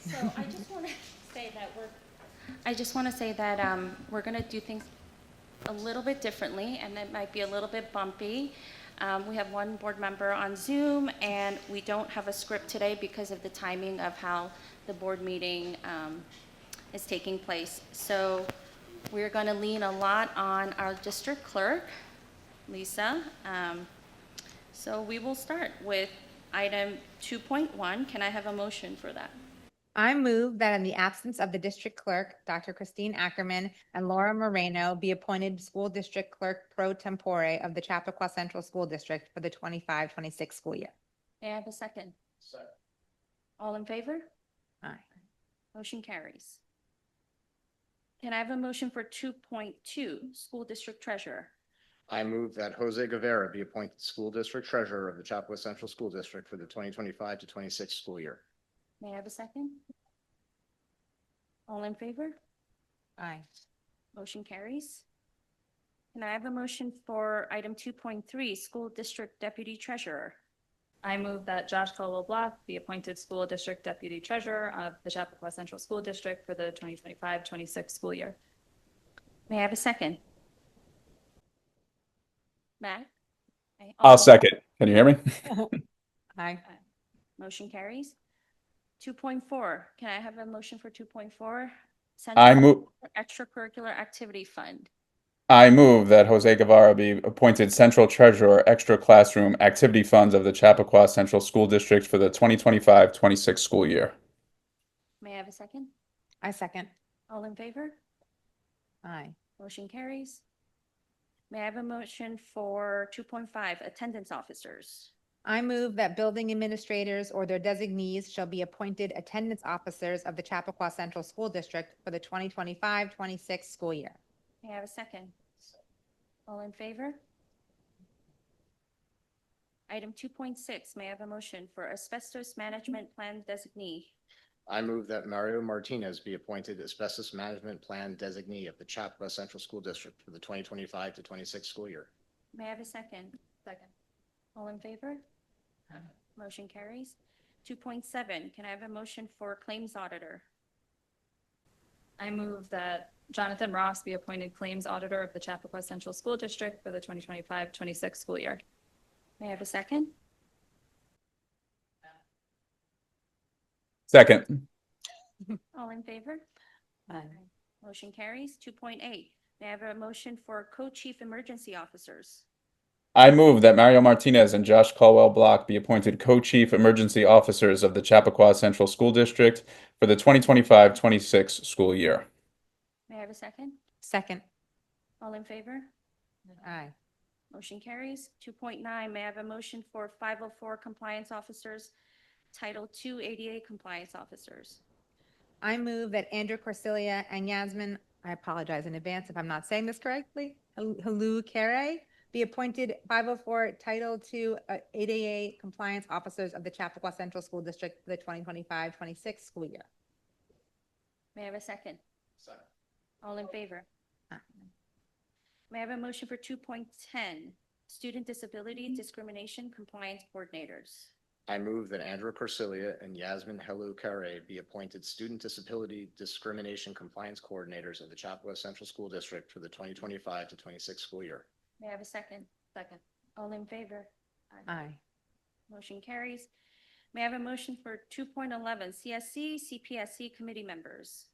So I just want to say that we're, I just want to say that um, we're going to do things a little bit differently, and it might be a little bit bumpy. Um, We have one board member on Zoom, and we don't have a script today because of the timing of how the board meeting um, is taking place. So we're going to lean a lot on our district clerk, Lisa. Um, So we will start with item 2.1. Can I have a motion for that? I move that in the absence of the district clerk, Dr. Christine Ackerman and Laura Moreno be appointed school district clerk pro tempore of the Chappaqua Central School District for the 25-26 school year. May I have a second? All in favor? Aye. Motion carries. Can I have a motion for two point two, school district treasurer? I move that Jose Guevara be appointed school district treasurer of the Chapua Central School District for the twenty twenty-five to twenty-six school year. May I have a second? All in favor? Aye. Motion carries. Can I have a motion for item two point three, school district deputy treasurer? I move that Josh Colwell Block be appointed School District Deputy Treasurer of the Chappaqua Central School District for the 2025-26 school year. May I have a second? Matt? Okay, all I'll in- second. Can you hear me? Aye. Motion carries. Two point four, can I have a motion for two point four? I move, Extracurricular activity fund. I move that Jose Guevara be appointed Central Treasurer, Extra Classroom Activity Funds of the Chappaqua Central School District for the 2025-26 school year. May I have a second? I second. All in favor? Aye. Motion carries. May I have a motion for two point five, attendance officers? I move that building administrators or their designees shall be appointed attendance officers of the Chappaqua Central School District for the 2025-26 school year. May I have a second? All in favor? Item two point six, may I have a motion for asbestos management plan designee? I move that Mario Martinez be appointed asbestos management plan designee of the Chapua Central School District for the twenty twenty-five to twenty-six school year. May I have a second? Second. All in favor? Motion carries. Two point seven, can I have a motion for claims auditor? I move that Jonathan Ross be appointed Claims Auditor of the Chappaqua Central School District for the 2025-26 school year. May I have a second? Second, All in favor? Motion carries. Two point eight, may I have a motion for co-chief emergency officers? I move that Mario Martinez and Josh Colwell Block be appointed Co-Chief Emergency Officers of the Chappaqua Central School District for the 2025-26 school year. May I have a second? Second. All in favor? Aye. Motion carries. Two point nine, may I have a motion for five oh four compliance officers, Title two ADA compliance officers? I move that Andrew Corsilia and Yasmin, I apologize in advance if I'm not saying this correctly, Hel- Halu Kare, be appointed 504 Title II uh, ADA compliance officers of the Chappaqua Central School District for the 2025-26 school year. May I have a second? All in favor? May I have a motion for two point ten, student disability discrimination compliance coordinators? I move that Andrew Corsilia and Yasmin Helu Kare be appointed student disability discrimination compliance coordinators of the Chapua Central School District for the twenty twenty-five to twenty-six school year. May I have a second? Second. All in favor? Aye. Motion carries. May I have a motion for two point eleven, CSC, CPSC committee members?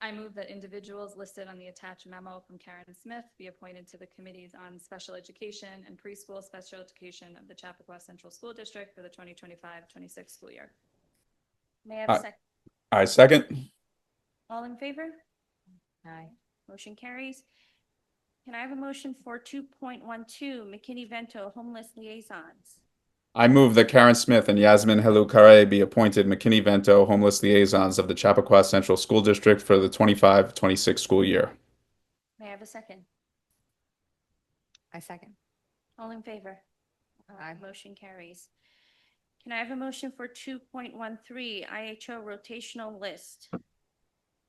I move that individuals listed on the attached memo from Karen Smith be appointed to the Committees on Special Education and Preschool Special Education of the Chappaqua Central School District for the 2025-26 school year. May I have a Aye. second? I second. All in favor? Aye. Motion carries. Can I have a motion for two point one two, McKinney-Vento homeless liaisons? I move that Karen Smith and Yasmin Helukare be appointed McKinney-Vento Homeless Liaisons of the Chappaqua Central School District for the 25-26 school year. May I have a second? I second. All in favor? Aye. Motion carries. Can I have a motion for two point one three, IHO rotational list?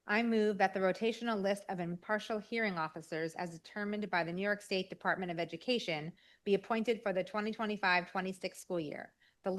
I move that the rotational list of impartial hearing officers as determined by the New York State Department of Education be appointed for the 2025-26 school year.